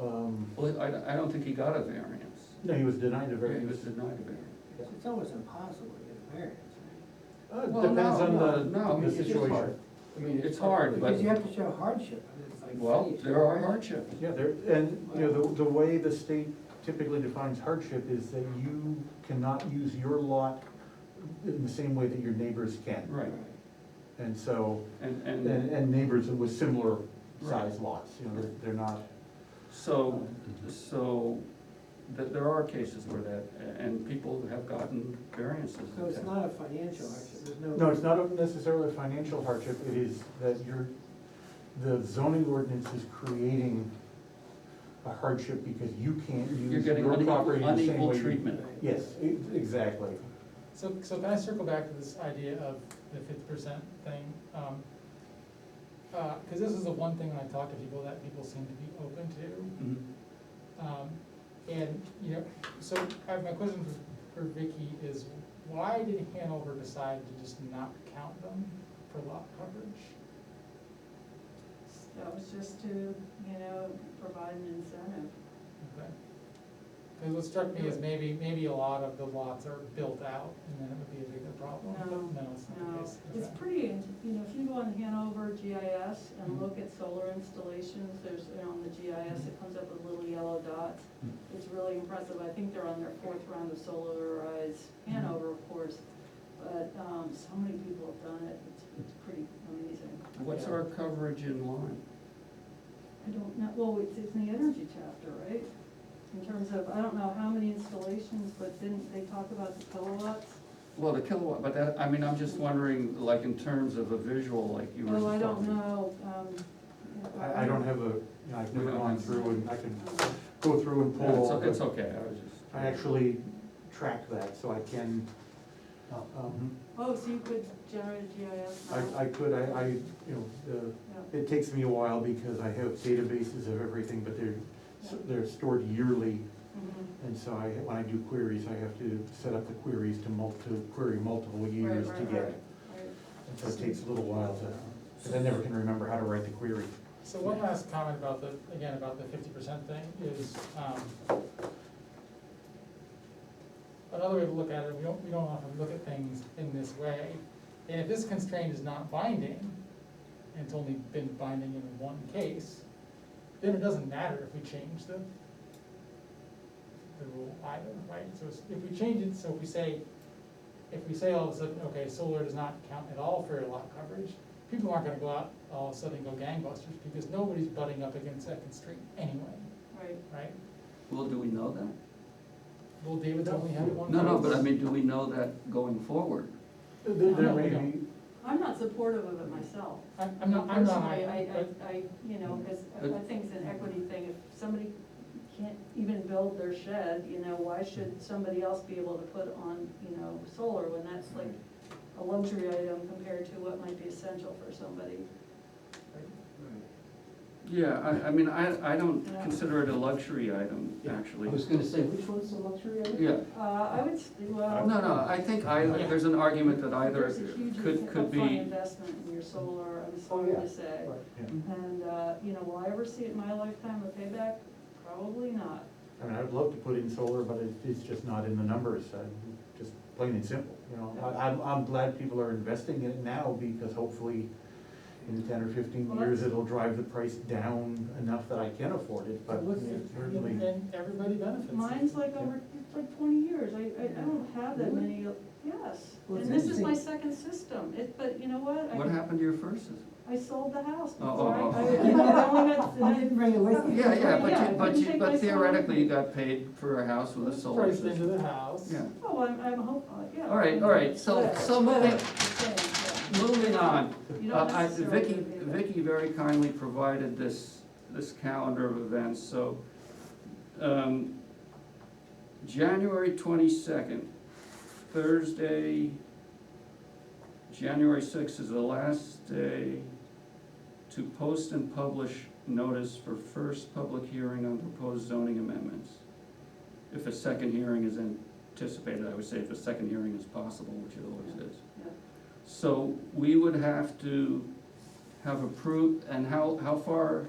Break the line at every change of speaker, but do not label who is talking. Um,
Well, I, I don't think he got a variance.
No, he was denied a
Yeah, He was
variance.
denied a variance.
It's almost impossible to get a variance, right?
Uh, it
Well,
Depends
no,
on the,
no, no, I mean,
the
it's just
situation.
hard. I mean, it's hard, but,
Because you have to show hardship, and it's like.
well,
geez,
there are
right?
hardships.
Yeah, there, and, you know, the, the way the state typically defines hardship is that you cannot use your lot in the same way that your neighbors can.
Right,
And so,
and,
and,
and
and neighbors with similar size lots, you know, they're, they're not.
so, so th- there are cases where that, and people have gotten variances. in
So it's
town.
not a financial hardship, there's no.
No, it's not necessarily a financial hardship, it is that you're, the zoning ordinance is creating a hardship because you can't
You're
use
getting
your
unequal,
property in the same
unequal
way. you-
treatment.
Yes, e- exactly.
So, so can I circle back to this idea of the fifty percent thing? Um, uh, cause this is the one thing when I talk to people that people seem to be open to.
Mhm.
Um, and, you know, so I have my question for, for Vicky is why did Hanover decide to just not count them for lot coverage?
That was just to, you know, provide an incentive.
Okay. Cause what struck me is maybe, maybe a lot of the lots are built out and then it would be a bigger problem, but
No,
no, it's not the
No,
case.
it's
Okay.
pretty, in- you know, if you go on Hanover GIS and
Mhm.
look at solar installations, there's, you know, on the GIS, it comes up with little yellow dots.
Mhm.
It's really impressive, I think they're on their fourth round of solarized
Mhm.
Hanover, of course, but, um, so many people have done it, it's, it's pretty amazing.
What's our coverage in line?
I don't know, well, it's, it's in the energy chapter, right? In terms of, I don't know how many installations, but didn't they talk about the kilowatts?
Well, the kilowatt, but that, I mean, I'm just wondering, like, in terms of a visual, like you were.
Oh, I don't
talking.
know, um.
I, I don't have a, you know, I've never gone through and I can
Um,
go through and
Yeah,
pull. all
It's, it's
the-
okay, I was just.
I actually track that, so I can, um,
Oh, so you could generate a GIS map?
I, I could, I, I, you know,
Yeah.
uh, it takes me a while because I have databases of everything, but they're, s- they're stored yearly.
Mhm.
And so I, when I do queries, I have to set up the queries to mul, to query multiple years
right,
to get.
right. Right.
And so it takes a little while to, because I never can remember how to write the query.
So one last comment about the, again, about the fifty percent thing is, um, another way to look at it, we don't, we don't often look at things in this way. And if this constraint is not binding, and it's only been binding in one case, then it doesn't matter if we change the, the rule either, right? So it's- if we change it, so if we say, if we say all of a sudden, okay, solar does not count at all for your lot coverage, people aren't gonna go out all of a sudden and go gangbusters, because nobody's butting up against Second Street anyway,
Right.
right?
Well, do we know that?
Well, David's only had one.
No, no,
vote.
but I mean, do we know that going forward?
There, there
No,
Oh,
we
may
don't.
be,
I'm not supportive of it myself.
I'm, I'm not, I'm not,
Personally, I,
but, Mm-hmm.
I, I, you know, because I
But-
think it's an equity thing, if somebody can't even build their shed, you know, why should somebody else be able to put on, you know, solar when that's like a luxury item compared to what might be essential for somebody?
Right.
Yeah, I, I mean, I, I don't
Yeah.
consider it a luxury item, actually.
I was gonna say, which one's the luxury item?
Yeah,
Uh, I would, s- well.
no, no, I think either, there's an argument that either
There's a huge
could, could
upfront
be,
investment in your solar, I'm
Oh,
sorry
yeah.
to say.
Right.
And, uh, you know, will I ever see it in my lifetime a payback? Probably not.
I mean, I would love to put in solar, but it, it's just not in the numbers, I, just plain and simple, you know? I, I'm, I'm glad people are investing in it now because hopefully in ten or fifteen
Well,
years,
that's-
it'll drive the price down enough that I can afford it, but
what's,
yeah,
the-
certainly.
and, and everybody benefits.
Mine's like over, it's like twenty years, I, I, I don't have that many, uh, yes.
Well, it's
And this is my second system, it, but you know what?
what
I
happened to your first? system?
I sold the house,
Oh, oh,
before I, I,
oh,
you know, I only got,
I didn't bring it with me.
Yeah, yeah,
Yeah,
but you,
it
but
didn't
you,
take
but
my solar.
theoretically, you got paid for a house with a solar
Priced into
system.
the house.
Yeah,
oh, I'm, I'm hopeful, yeah.
all right, all right, so,
Whatever,
so
whatever,
moving,
the same,
moving on.
yeah. You
Uh,
don't
I-
necessarily
Vicky,
need it.
Vicky very kindly provided this, this calendar of events, so, um, January twenty-second, Thursday, January sixth is the last day to post and publish notice for first public hearing on proposed zoning amendments. If a second hearing is anticipated, I would say if a second hearing is possible, which it always is.
Yeah.
So we would have to have approved, and how, how far